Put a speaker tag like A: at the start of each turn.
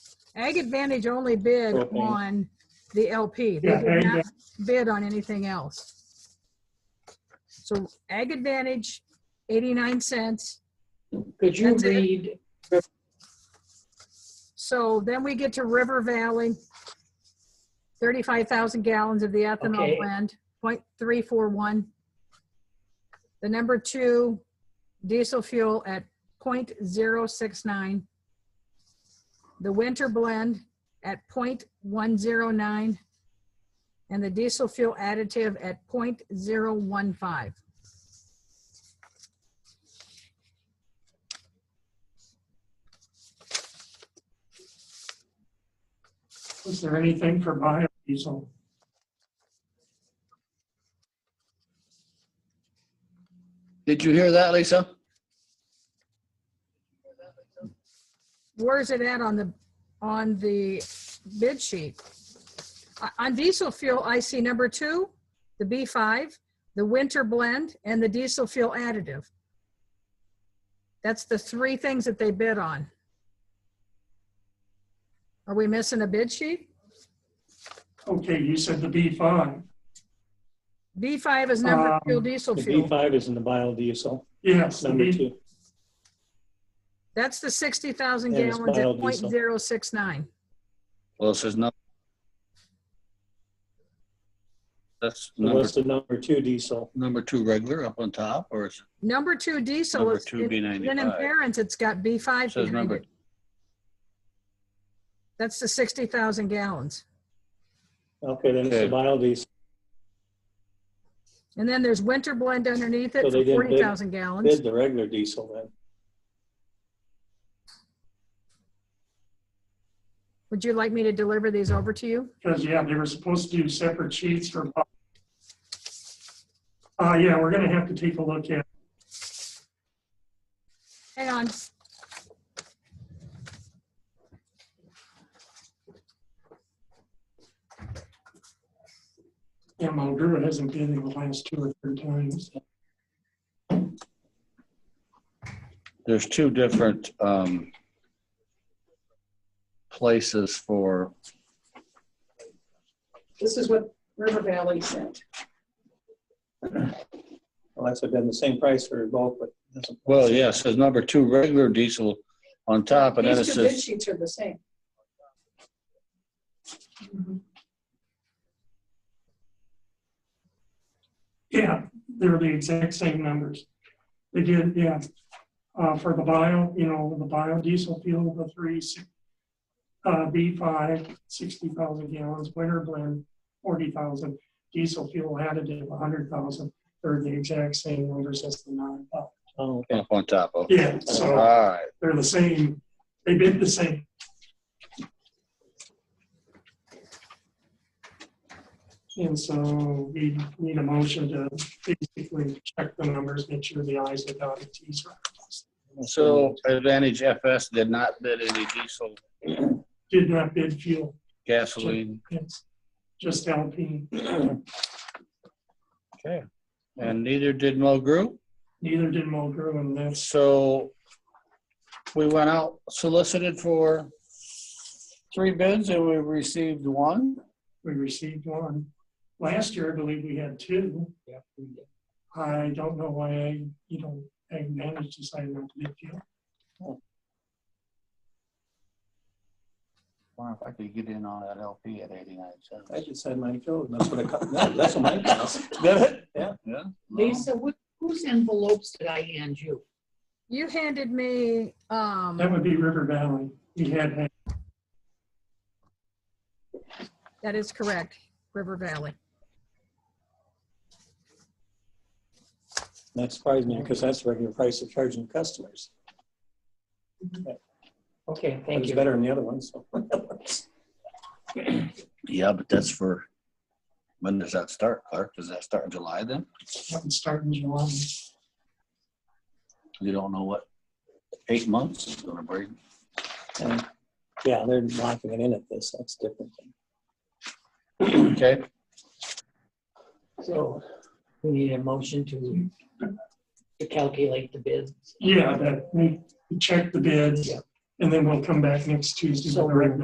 A: Ag Advantage only bid
B: Okay.
A: on the LP. They
B: Yeah,
A: did
B: Ag-
A: not bid on anything else. So Ag Advantage, 89 cents.
C: Could you
A: That's it.
C: read,
A: So then we get to River Valley, 35,000 gallons of the ethanol
C: Okay.
A: blend, 0.341. The number two, diesel fuel at 0.069. The winter blend at 0.109. And the diesel fuel additive at 0.015.
B: Was there anything for biodiesel?
D: Did you hear that, Lisa?
A: where's it at on the, on the bid sheet? O- On diesel fuel, I see number two, the B5, the winter blend, and the diesel fuel additive. That's the three things that they bid on. Are we missing a bid sheet?
B: Okay, you said the B5.
A: B5 is number
B: Um,
A: fuel diesel
E: The
A: fuel.
E: B5 is in the biodiesel,
B: Yes, the
E: number
B: B-
E: two.
A: That's the 60,000
E: And it's
A: gallons at
E: biodiesel.
A: 0.069.
D: Well, this is not. That's
E: So
D: number,
E: What's the number two diesel?
D: number two regular up on top, or is
A: Number two diesel
D: number
A: is,
D: two
A: then
D: B
A: in
D: ninety-five?
A: parents, it's got B5
D: Says
A: behind it.
D: number,
A: That's the 60,000 gallons.
E: Okay, then it's the
D: Okay.
E: biodiesel.
A: And then there's winter blend underneath
E: So
A: it
E: they
A: for
E: didn't bid-
A: 40,000 gallons.
E: Bid the regular diesel then.
A: Would you like me to deliver these over to you?
B: because, yeah, they were supposed to do separate sheets for. bi- Uh, yeah, we're gonna have to take a look at,
A: Hang on.
B: yeah, Mulgrew hasn't been in the last two or three times.
D: there's two different, um, places for,
C: this is what River Valley sent.
E: Well, that's been the same price for both, but. it doesn't-
D: well, yeah, it says number two regular diesel on top, and then it
C: These two bid
D: says,
C: sheets are the same.
B: Mm-hmm.
C: Mhm.
B: Yeah, they're the exact same numbers. They did, yeah. Uh, for the bio, you know, the biodiesel fuel, the three, si- uh, B five, sixty thousand gallons, winter blend, forty thousand, diesel fuel additive, a hundred thousand. They're the exact same numbers as the nine. uh,
E: Oh, okay.
D: up on top of.
B: Yeah,
D: All
B: so
D: right,
B: they're the same, they bid the same. And so we need a motion to basically check the numbers, make sure the i's are dotted, t's are crossed.
D: so Advantage FS did not bid any diesel,
B: Did not bid fuel,
D: gasoline,
B: it's just LP.
D: okay, and neither did Mulgrew.
B: Neither did Mulgrew and that's,
D: So we went out solicited for three bids and we received one.
B: we received one. Last year, I believe we had two. I don't know why, I you know, I managed to sign up bid fuel.
D: Wonder if I could get in on that LP at 89
E: I
D: cents.
E: just had mine filled, and that's what it, co- that- that's what mine costs.
D: Did it?
E: Yeah.
D: Yeah.
C: Lisa, wh- whose envelopes did I hand you?
A: You handed me,
B: That
A: um,
B: would be River Valley. We had had
A: that is correct, River Valley.
E: That surprised me, because that's the regular price of charging customers.
C: Okay,
E: It
C: thank
E: was
C: you.
E: better than the other one, so.
D: Yeah, but that's for, when does that start, Clark? Does that start in July then?
B: one start in July.
D: You don't know what eight months is gonna bring.
E: And, Yeah, they're locking it in at this, that's different.
D: Okay,
C: So we need a motion to to calculate the bids.
B: Yeah, that, we check the bids,
C: Yeah.
B: and then we'll come back next Tuesday
C: So
B: with a recommendation.